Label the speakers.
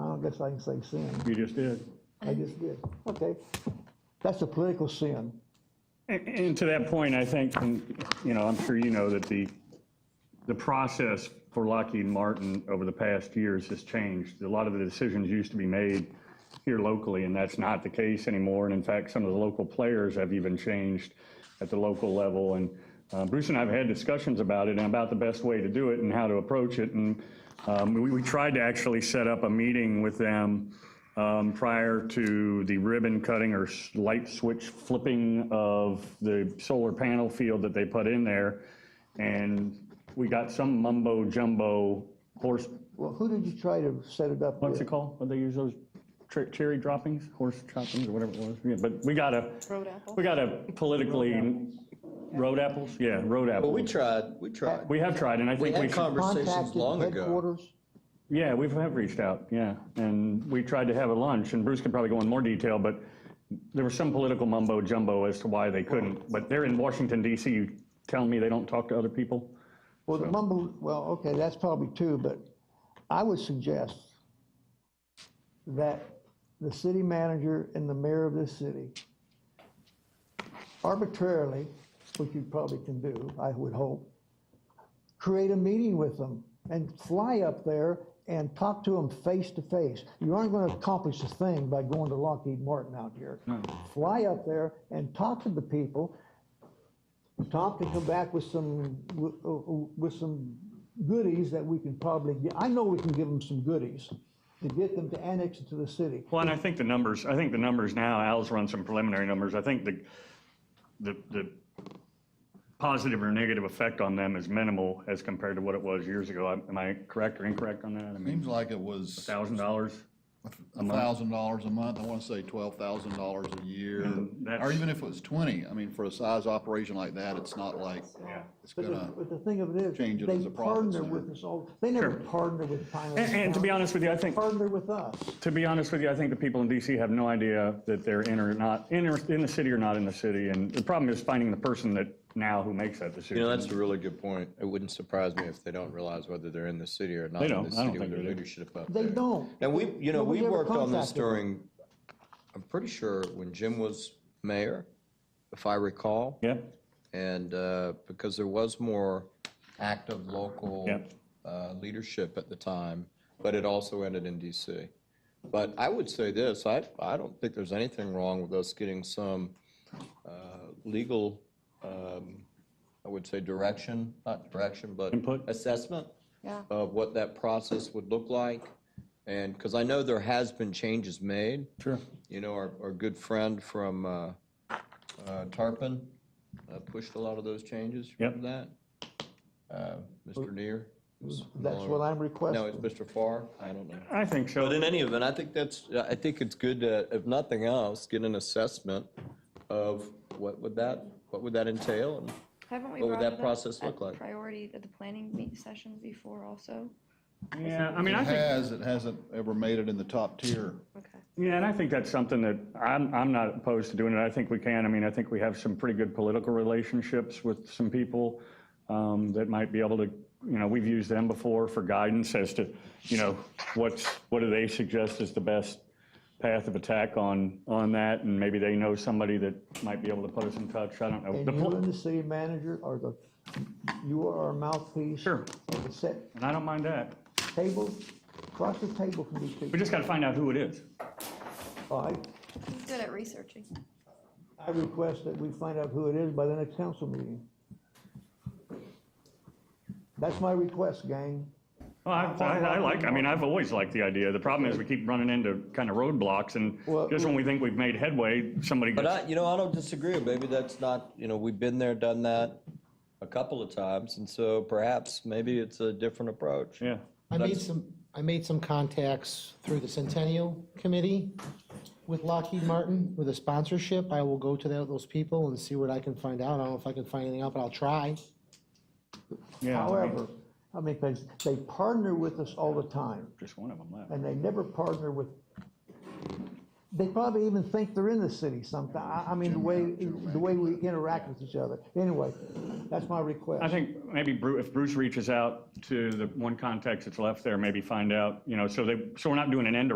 Speaker 1: guess I can say sin.
Speaker 2: You just did.
Speaker 1: I just did. Okay. That's a political sin.
Speaker 2: And- And to that point, I think, and, you know, I'm sure you know that the, the process for Lockheed Martin over the past years has changed. A lot of the decisions used to be made here locally, and that's not the case anymore. And in fact, some of the local players have even changed at the local level. And uh, Bruce and I have had discussions about it and about the best way to do it and how to approach it. And um, we, we tried to actually set up a meeting with them um, prior to the ribbon cutting or s- light switch flipping of the solar panel field that they put in there. And we got some mumbo jumbo horse,
Speaker 1: Well, who did you try to set it up
Speaker 2: what's it
Speaker 1: with?
Speaker 2: called? What they use those tre- cherry droppings, horse droppings or whatever it was. Yeah, But we got a,
Speaker 3: Road apple.
Speaker 2: we got a politically, road apples? Yeah, road
Speaker 4: Well, we
Speaker 2: apples.
Speaker 4: tried, we tried.
Speaker 2: We have tried and I
Speaker 4: We
Speaker 2: think we
Speaker 4: had
Speaker 2: should.
Speaker 4: conversations
Speaker 1: Contacted
Speaker 4: long ago.
Speaker 1: headquarters?
Speaker 2: Yeah, we've have reached out, yeah. And we tried to have a lunch, and Bruce can probably go in more detail, but there was some political mumbo jumbo as to why they couldn't. But they're in Washington DC, you telling me they don't talk to other people?
Speaker 1: Well, the mumble, well, okay, that's probably two, but I would suggest that the city manager and the mayor of this city arbitrarily, which you probably can do, I would hope, create a meeting with them and fly up there and talk to them face to face. You aren't going to accomplish a thing by going to Lockheed Martin out here. Fly up there and talk to the people Tom can come back with some, with uh, with some goodies that we can probably, get. I know we can give them some goodies to get them to annex it to the city.
Speaker 2: Well, and I think the numbers, I think the numbers now, Al's run some preliminary numbers. I think the, the, the positive or negative effect on them is minimal as compared to what it was years ago. Am I correct or incorrect on that? I mean,
Speaker 5: Seems like it was
Speaker 2: thousand dollars?
Speaker 5: a thousand dollars a month, I wanna say twelve thousand dollars a year, or
Speaker 2: Mm-hmm. that's-
Speaker 5: even if it was twenty, I mean, for a size operation like that, it's not like, it's
Speaker 1: But
Speaker 5: gonna,
Speaker 1: the, but the thing of it is,
Speaker 5: change it as
Speaker 1: they
Speaker 5: a profit
Speaker 1: partner with
Speaker 5: center.
Speaker 1: us all, they never partner with Pinellas
Speaker 2: And, and to be
Speaker 1: County.
Speaker 2: honest with you, I think.
Speaker 1: Partner with us.
Speaker 2: To be honest with you, I think the people in DC have no idea that they're in or not, in, or, in the city or not in the city. And the problem is finding the person that now who makes that decision.
Speaker 4: You know, that's a really good point. It wouldn't surprise me if they don't realize whether they're in the city or not
Speaker 2: They
Speaker 4: in
Speaker 2: don't.
Speaker 4: the
Speaker 2: I don't
Speaker 4: city with
Speaker 2: think
Speaker 4: their
Speaker 2: they do.
Speaker 4: leadership up
Speaker 1: They
Speaker 4: there.
Speaker 1: don't.
Speaker 4: And we, you know, we
Speaker 1: Nobody ever
Speaker 4: worked on this
Speaker 1: contacted them.
Speaker 4: during, I'm pretty sure when Jim was mayor, if I recall.
Speaker 2: yeah.
Speaker 4: And uh, because there was more active local
Speaker 2: Yep.
Speaker 4: uh, leadership at the time, but it also ended in DC. But I would say this, I, I don't think there's anything wrong with us getting some uh, legal, um, I would say direction, not direction, but
Speaker 2: Input?
Speaker 4: assessment
Speaker 3: Yeah.
Speaker 4: of what that process would look like. And, because I know there has been changes made.
Speaker 2: Sure.
Speaker 4: You know, our, our good friend from uh, uh, Tarpon uh, pushed a lot of those changes. You
Speaker 2: Yep.
Speaker 4: Remember that? Uh, Mr. Neer? was
Speaker 1: That's what I'm
Speaker 4: No, it's
Speaker 1: requesting.
Speaker 4: Mr. Farr? I don't know.
Speaker 2: I think so.
Speaker 4: But in any event, I think that's, I think it's good to, if nothing else, get an assessment of what would that, what would that entail? and
Speaker 3: Haven't we
Speaker 4: What would
Speaker 3: brought
Speaker 4: that
Speaker 3: it up
Speaker 4: process
Speaker 3: at
Speaker 4: look like?
Speaker 3: Priority at the planning meet sessions before also?
Speaker 2: yeah. I mean,
Speaker 5: it
Speaker 2: I think.
Speaker 5: has, it hasn't ever made it in the top tier.
Speaker 3: Okay.
Speaker 2: Yeah, and I think that's something that I'm, I'm not opposed to doing it. I think we can. I mean, I think we have some pretty good political relationships with some people um, that might be able to, you know, we've used them before for guidance as to, you know, what's, what do they suggest is the best path of attack on, on that? And maybe they know somebody that might be able to put us in touch. I don't know.
Speaker 1: And
Speaker 2: The
Speaker 1: you
Speaker 2: pl-
Speaker 1: and the city manager are the, you are our mouthpiece.
Speaker 2: Sure.
Speaker 1: And to set
Speaker 2: And I don't mind that.
Speaker 1: table, across the table from these
Speaker 2: We
Speaker 1: people.
Speaker 2: just got to find out who it is.
Speaker 1: All right.
Speaker 3: He's good at researching.
Speaker 1: I request that we find out who it is by the next council meeting. That's my request, gang.
Speaker 2: Well, Oh, I, I I like, I mean, I've always liked the idea. The problem is we keep running into kind of roadblocks and
Speaker 1: Well-
Speaker 2: just when we think we've made headway, somebody
Speaker 4: But
Speaker 2: gets,
Speaker 4: I, you know, I don't disagree. Maybe that's not, you know, we've been there, done that a couple of times, and so perhaps maybe it's a different approach.
Speaker 2: yeah.
Speaker 6: I made some, I made some contacts through the Centennial Committee with Lockheed Martin with a sponsorship. I will go to tho- those people and see what I can find out. I don't know if I can find anything out, but I'll try.
Speaker 2: Yeah, I mean,
Speaker 1: However, I mean, 'cause they partner with us all the time,
Speaker 2: Just one of them left.
Speaker 1: and they never partner with, they probably even think they're in the city sometime. I, I mean, the way, the way we interact with each other. Anyway, that's my
Speaker 2: I
Speaker 1: request.
Speaker 2: think maybe Bru, if Bruce reaches out to the one contact that's left there, maybe find out, you know, so they, so we're not doing an end